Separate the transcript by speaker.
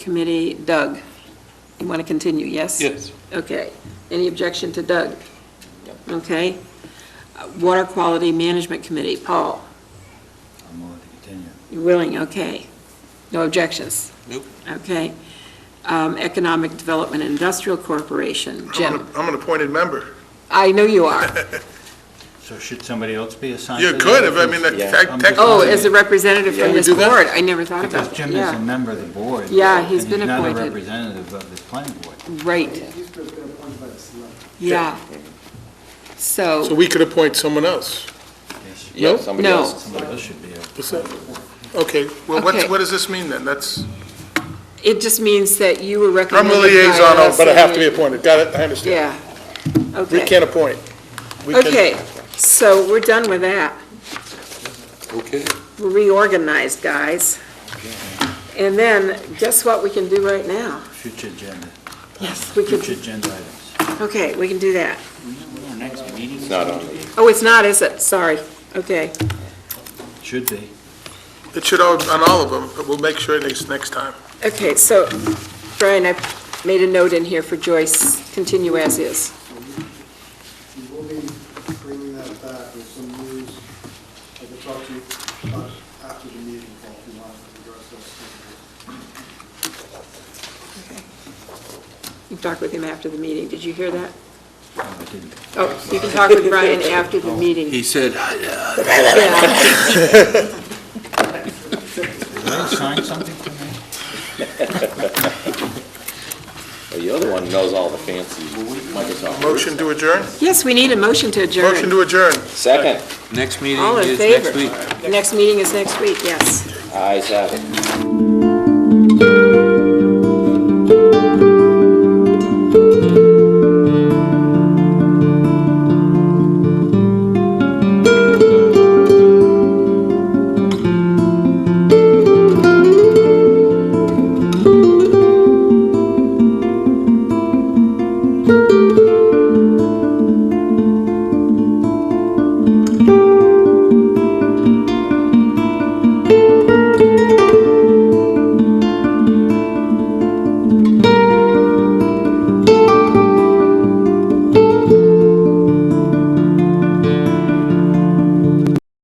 Speaker 1: Committee, Doug. You want to continue, yes?
Speaker 2: Yes.
Speaker 1: Okay. Any objection to Doug? Okay. Uh, Water Quality Management Committee, Paul,
Speaker 3: I'm willing to continue.
Speaker 1: you're willing, okay. No objections?
Speaker 2: Nope.
Speaker 1: Okay. Um, Economic Development and Industrial Corporation,
Speaker 4: I'm
Speaker 1: Jim.
Speaker 4: an- I'm an appointed member.
Speaker 1: I know you are.
Speaker 3: So should somebody else be assigned?
Speaker 4: You
Speaker 3: to
Speaker 4: could,
Speaker 3: that?
Speaker 4: if, I mean,
Speaker 3: Because-
Speaker 4: tec-
Speaker 3: I'm just
Speaker 1: Oh,
Speaker 3: wondering,
Speaker 1: as a representative
Speaker 4: Yeah,
Speaker 1: from
Speaker 4: we
Speaker 1: this
Speaker 4: do that?
Speaker 1: board, I never thought about
Speaker 3: Because
Speaker 1: that.
Speaker 3: Jim is a member of the board.
Speaker 1: Yeah, he's been
Speaker 3: And he's not a
Speaker 1: appointed.
Speaker 3: representative of the planning board.
Speaker 1: Yeah, right,
Speaker 5: He's been appointed by the select.
Speaker 1: yeah.
Speaker 4: So
Speaker 1: So,
Speaker 4: we could appoint someone else.
Speaker 3: Yes,
Speaker 2: Yeah,
Speaker 4: Nope.
Speaker 2: somebody
Speaker 1: No.
Speaker 2: else.
Speaker 3: Somebody else should be. a-
Speaker 4: Is that- Okay, well, what's,
Speaker 1: Okay.
Speaker 4: what does this mean then? That's,
Speaker 1: it just means that you were
Speaker 4: I'm
Speaker 1: recommended
Speaker 4: a
Speaker 1: by
Speaker 4: liaison,
Speaker 1: us
Speaker 4: but I
Speaker 1: and
Speaker 4: have to be
Speaker 1: you-
Speaker 4: appointed. Got it, I understand.
Speaker 1: Yeah,
Speaker 4: We
Speaker 1: okay.
Speaker 4: can't appoint. We can-
Speaker 1: Okay, so we're done with that.
Speaker 2: Okay.
Speaker 1: We're reorganized, guys. And then, guess what we can do right now?
Speaker 3: Future agenda,
Speaker 1: Yes. We
Speaker 3: future
Speaker 1: could,
Speaker 3: agenda items.
Speaker 1: okay, we can do that.
Speaker 2: It's not on the
Speaker 1: Oh, it's not, is it? Sorry, okay.
Speaker 3: Should be.
Speaker 4: It should all, on all of them, but we'll make sure it is next time.
Speaker 1: Okay, so, Brian, I made a note in here for Joyce, continue as is.
Speaker 5: We will be bringing that back with some news. I can talk to you about after the meeting, Paul, if you want to address those.
Speaker 1: You can talk with him after the meeting, did you hear that?
Speaker 3: No, I didn't.
Speaker 1: Oh, you can talk with Brian after the meeting.
Speaker 2: He said,
Speaker 1: Yeah.
Speaker 3: Did I assign something to me?
Speaker 2: "Well, the other one knows all the fancy Microsoft. words."
Speaker 4: Motion to adjourn?
Speaker 1: Yes, we need a motion to
Speaker 4: Motion
Speaker 1: adjourn.
Speaker 4: to adjourn.
Speaker 2: Second,
Speaker 6: Next meeting
Speaker 1: All in
Speaker 6: is next
Speaker 1: favor?
Speaker 6: week.
Speaker 1: Next meeting is next week, yes.
Speaker 2: ayes have it.